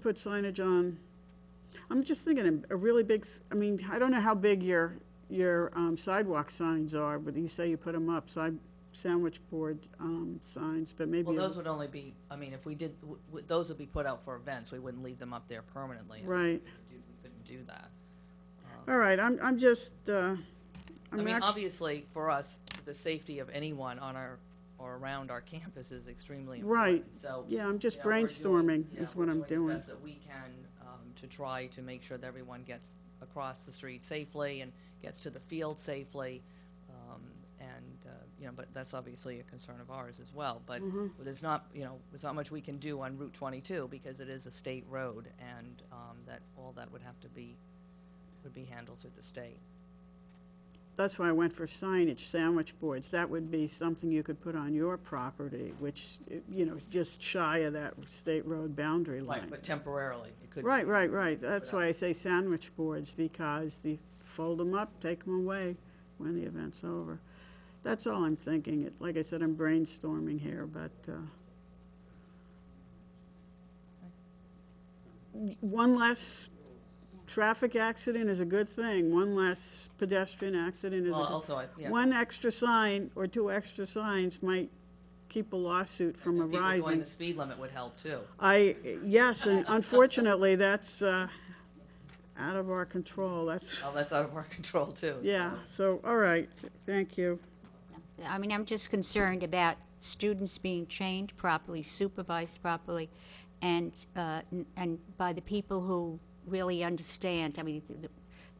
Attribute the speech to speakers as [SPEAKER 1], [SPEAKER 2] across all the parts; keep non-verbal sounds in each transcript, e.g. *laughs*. [SPEAKER 1] put signage on, I'm just thinking a a really big, s- I mean, I don't know how big your, your um, sidewalk signs are, but you say you put them up, side, sandwich board um, signs, but maybe.
[SPEAKER 2] Well,
[SPEAKER 1] a-
[SPEAKER 2] those would only be, I mean, if we did, w- w- those would be put out for events, we wouldn't leave them up there permanently. and we
[SPEAKER 1] Right,
[SPEAKER 2] couldn't do- We couldn't do that.
[SPEAKER 1] all right, I'm, I'm just, uh,
[SPEAKER 2] I
[SPEAKER 1] I'm
[SPEAKER 2] mean,
[SPEAKER 1] actually,
[SPEAKER 2] obviously, for us, the safety of anyone on our, or around our *laughs* campus is extremely
[SPEAKER 1] Right.
[SPEAKER 2] important, so.
[SPEAKER 1] yeah, I'm just
[SPEAKER 2] you know, we're doing-
[SPEAKER 1] brainstorming
[SPEAKER 2] yeah,
[SPEAKER 1] is
[SPEAKER 2] we're
[SPEAKER 1] what I'm
[SPEAKER 2] The
[SPEAKER 1] doing.
[SPEAKER 2] best that we can um, to try to make sure that everyone gets across the street safely and gets to the field safely. um, And, uh, you know, but that's obviously a concern of ours as well. But
[SPEAKER 1] Mm-hmm.
[SPEAKER 2] there's not, you know, there's not much we can do on Route 22 because it is a state road and um, that, all that would have to be, would be handled through the state.
[SPEAKER 1] That's why I went for signage, sandwich boards, that would be something you could put on your property, which, you know, just shy of that state road boundary line.
[SPEAKER 2] Right, but temporarily, it could. be-
[SPEAKER 1] Right, right, right. That's why I say sandwich boards, because you fold them up, take them away when the event's over. That's all I'm thinking. It- Like I said, I'm brainstorming here, but, uh, one less traffic accident is a good thing. One less pedestrian accident is a
[SPEAKER 2] Well,
[SPEAKER 1] good.
[SPEAKER 2] also, I- yeah.
[SPEAKER 1] One extra sign or two extra signs might keep a lawsuit from
[SPEAKER 2] and People going
[SPEAKER 1] arising.
[SPEAKER 2] the speed limit would help too.
[SPEAKER 1] I, yes, and unfortunately, that's uh, out of our control, that's,
[SPEAKER 2] Well, that's out of our *laughs* control too.
[SPEAKER 1] yeah, so, all right, thank you.
[SPEAKER 3] I mean, I'm just concerned about students being trained properly, supervised properly, and, uh, n- and by the people who really understand, I mean, th- th-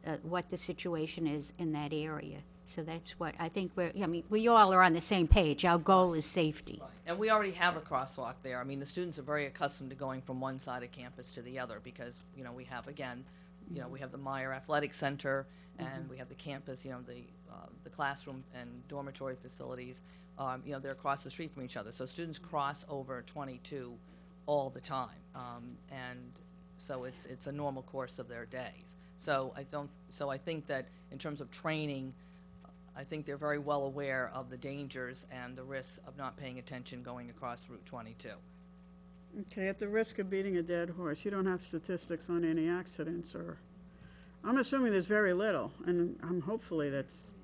[SPEAKER 3] uh, what the situation is in that area. So that's what, I think we're, I mean, we all are on the same page. Our goal is safety.
[SPEAKER 2] And we already have a crosswalk there. I mean, the students are very accustomed to going from one side of campus to the other because, you know, we have, again, you know, we have the Meyer Athletic Center and we have the campus, you know, the, uh, the classroom and dormitory facilities. Um, you know, they're across the street from each other. So students cross over twenty-two all the time. Um, and so it's, it's a normal course of their days. So I don't, so I think that in terms of training, I think they're very well aware of the dangers and the risks of not paying attention going across Route 22.
[SPEAKER 1] Okay, at the risk of beating a dead horse, you don't have statistics on any accidents, or, I'm assuming there's very little, and I'm hopefully that's,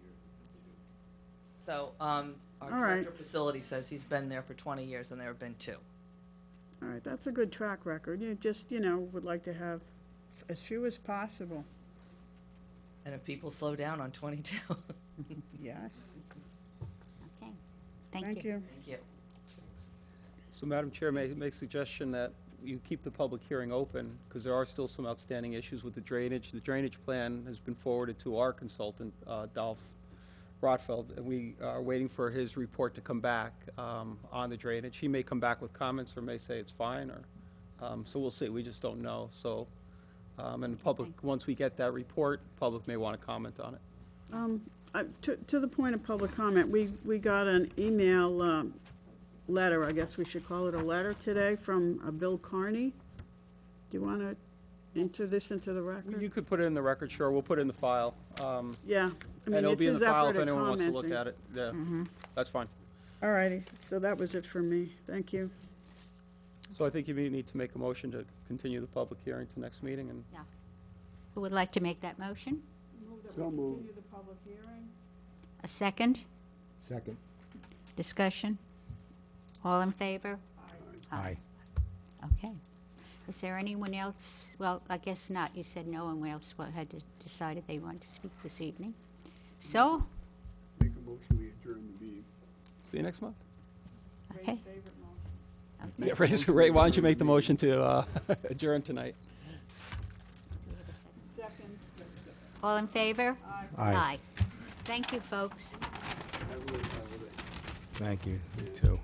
[SPEAKER 2] So, um, our
[SPEAKER 1] All right.
[SPEAKER 2] director of facility says he's been there for 20 years and there have been two.
[SPEAKER 1] all right, that's a good track record. You just, you know, would like to have as few as possible,
[SPEAKER 2] And if people slow down on 22, *laughs* thank
[SPEAKER 1] yes.
[SPEAKER 3] Okay, thank you.
[SPEAKER 1] Thank you.
[SPEAKER 2] you.
[SPEAKER 4] So Madam Chair, may I make a suggestion that you keep the public hearing open, because there are still some outstanding issues with the drainage. The drainage plan has been forwarded to our consultant, uh, Dolph Rotfeld, and we are waiting for his report to come back um, on the drainage. He may come back with comments, or may say it's fine, or, um, so we'll see, we just don't know, so, um, and the public, once we get that report, public may want to comment on it.
[SPEAKER 1] Uh, To to the point of public comment, we, we got an email um, letter, I guess we should call it a letter today, from uh, Bill Carney. Do you want to enter this into the
[SPEAKER 4] You
[SPEAKER 1] record?
[SPEAKER 4] could put it in the record, sure, we'll put it in the file. um,
[SPEAKER 1] Yeah. I
[SPEAKER 4] And
[SPEAKER 1] mean,
[SPEAKER 4] it'll
[SPEAKER 1] it's
[SPEAKER 4] be in the
[SPEAKER 1] his
[SPEAKER 4] file if
[SPEAKER 1] effort at
[SPEAKER 4] anyone wants to look
[SPEAKER 1] commenting. Mm-hmm.
[SPEAKER 4] at it. Yeah, that's fine.
[SPEAKER 1] All righty, so that was it for me. Thank you.
[SPEAKER 4] So I think you may need to make a motion to continue the public hearing to next meeting, and
[SPEAKER 3] Yeah. Who would like to make that motion?
[SPEAKER 5] So moved.
[SPEAKER 3] A second?
[SPEAKER 5] Second.
[SPEAKER 3] Discussion? All in favor?
[SPEAKER 5] Aye.
[SPEAKER 3] Okay. Is there anyone else, well, I guess not, you said no one else wa- had de- decided they wanted to speak this evening. So,
[SPEAKER 5] Make a motion, we adjourn the meeting.
[SPEAKER 4] see you next month.
[SPEAKER 3] okay,
[SPEAKER 4] Yeah, *laughs* Ray, just- Ray, why don't you make the motion to uh, *laughs* adjourn tonight?
[SPEAKER 1] Second.
[SPEAKER 3] all in favor?
[SPEAKER 6] Aye.
[SPEAKER 3] Thank you, folks.
[SPEAKER 5] I will, I will.
[SPEAKER 6] Thank you, you too.